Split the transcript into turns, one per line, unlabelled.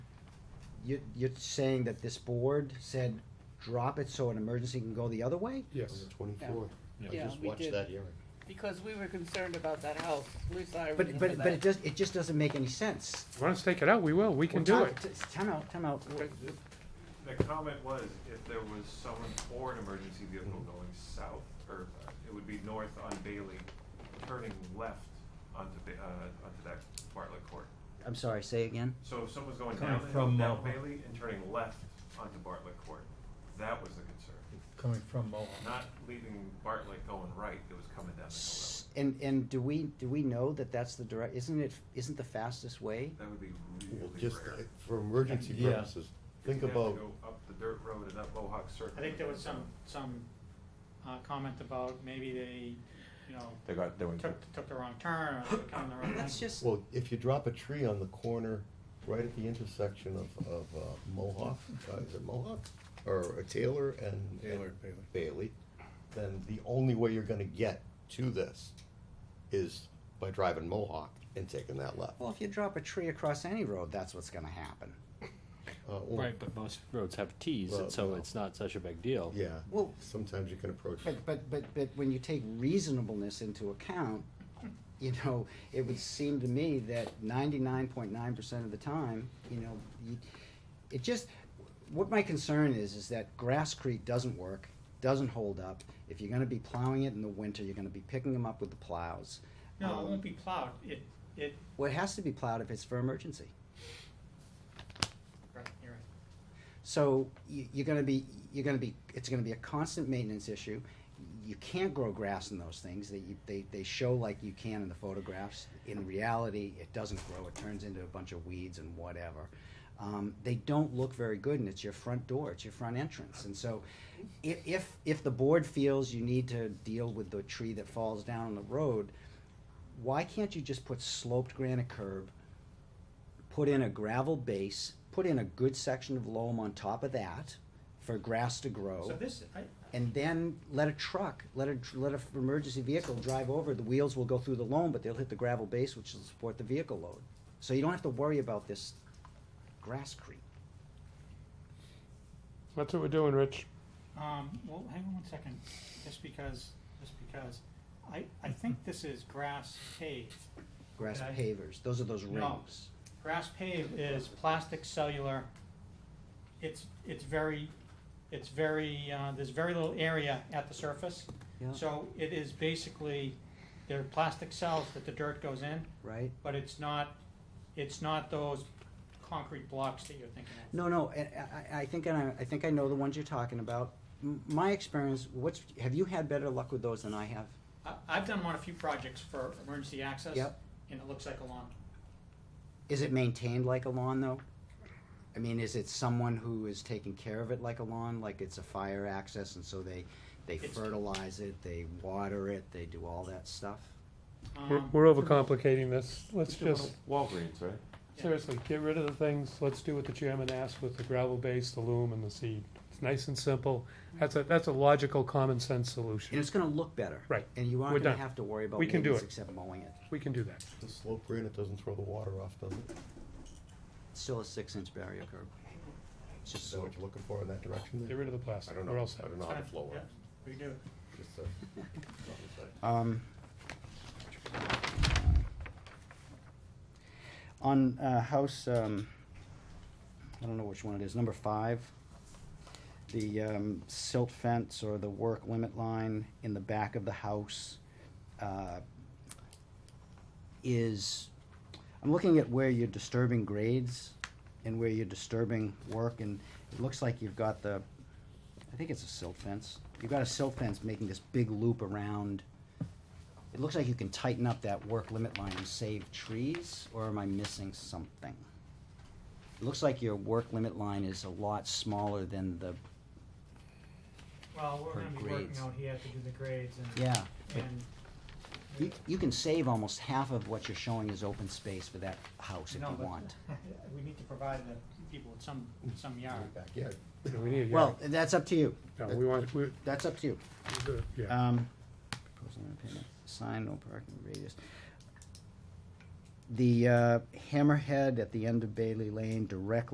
you, you're saying that this board said drop it so an emergency can go the other way?
Yes.
Twenty-four.
Yeah.
I
Yeah,
just
we
watched
did.
that hearing.
Because we were concerned about that house, Lisa, I
But,
remember
but, but it
that.
does, it just doesn't make any sense.
If you want us to take it out, we will, we can do
Well,
it.
ti- ti- Time out, time out.
The comment was if there was someone or an emergency vehicle going south, or uh, it would be north on Bailey, turning left onto, Ba- uh, onto that Bartlett Court.
I'm sorry, say again?
So if someone's going
Coming
down, the hill,
from
down
Mohawk.
Bailey and turning left onto Bartlett Court, that was the concern.
Coming from Mohawk.
Not leaving Bartlett going right, it was coming down the hill.
S-
that
And, and do we, do we know that that's the direct, isn't it, isn't the fastest way?
way. That would be
Well,
really
just
rare.
uh, for emergency
Yeah.
purposes, think
You'd have to
about,
go up the dirt road and up Mohawk Circle.
I think there was some, some, uh, comment about maybe they, you know,
They got, they went,
took, took the wrong turn or they come the wrong way.
That's just,
well, if you drop a tree on the corner, right at the intersection of, of uh, Mohawk, uh, is it Mohawk? Or uh, Taylor and. and
Taylor, Bailey.
Bailey, then the only way you're gonna get to this is by driving Mohawk and taking that left.
well, if you drop a tree across any road, that's what's gonna happen.
Uh, or-
Right, but most roads have Ts,
Well,
and so
no.
it's not such a big deal.
Yeah,
Well-
sometimes you can approach.
But, but, but, but when you take reasonableness into account, you know, it would seem to me that ninety-nine point nine percent of the time, you know, you, it just, what my concern is, is that grasscrete doesn't work, doesn't hold up. If you're gonna be plowing it in the winter, you're gonna be picking them up with the plows.
No, it
Um,
won't be plowed, it, it,
Well, it has to be plowed if it's for emergency.
right, you're right.
So you, you're gonna be, you're gonna be, it's gonna be a constant maintenance issue. You can't grow grass in those things. They, you- they, they show like you can in the photographs. In reality, it doesn't grow. It turns into a bunch of weeds and whatever. Um, they don't look very good and it's your front door, it's your front entrance. And so if, if, if the board feels you need to deal with the tree that falls down on the road, why can't you just put sloped granite curb, put in a gravel base, put in a good section of loam on top of that for grass to
So
grow,
this, I,
and then let a truck, let a, let a f- emergency vehicle drive over, the wheels will go through the loam, but they'll hit the gravel base, which will support the vehicle load. So you don't have to worry about this grass creep.
That's what we're doing, Rich.
Um, well, hang on one second, just because, just because, I, I think this is grass paved.
Grass
Okay.
pavers, those are those
No.
rings.
Grass paved is plastic cellular, it's, it's very, it's very, uh, there's very little area at the surface.
Yeah,
So it is basically, they're plastic cells that the dirt goes in,
right?
but it's not, it's not those concrete blocks that you're thinking of.
No, no, and I, I- I think, I, I think I know the ones you're talking about. M- My experience, what's, have you had better luck with those than I have?
I, I've done one a few projects for emergency access.
Yep.
And it looks like a lawn.
Is it maintained like a lawn though? I mean, is it someone who is taking care of it like a lawn, like it's a fire access and so they, they
It's-
fertilize it, they water it, they do all that stuff?
We're,
Um,
we're overcomplicating this. Let's
to
just,
Walgreens, right?
Yeah.
seriously, get rid of the things. Let's do what the chairman asked with the gravel base, the loom, and the seed. It's nice and simple. That's a, that's a logical, common sense
And
solution.
it's gonna look better.
Right.
And you
We're
aren't gonna
done.
have to worry about
We can do
maintenance
it.
except mowing it.
We can do that.
The slope granite doesn't throw the water off, does it?
It's Still a six inch barrier curb. It's just
Is that
so,
what you're looking for in that direction
Get
there?
rid of the
I
plastic.
don't know,
We're all
I
set.
don't know how to
Fine.
flow
Yeah,
it.
we do.
Just uh, a-
um. On, uh, house, um, I don't know which one it is, number five. the um, silt fence or the work limit line in the back of the house uh, is, I'm looking at where you're disturbing grades and where you're disturbing work, and it looks like you've got the, I think it's a silt fence. You've got a silt fence making this big loop around. It looks like you can tighten up that work limit line and save trees, or am I missing something? It looks like your work limit line is a lot smaller than the,
Well,
For
we're gonna be
grades.
working out here to do the grades and,
yeah. but
and
You, you can save almost half of what you're showing as open space for that house if
No,
you
but-
want.
we need to provide the people with some, some yard.
Backyard.
Yeah, We need, yeah.
Well, that's up to you,
No, we want, we,
that's up to you.
yeah.
Um, proposal on payment. sign, no parking radius. The, uh, hammerhead at the end of Bailey Lane directly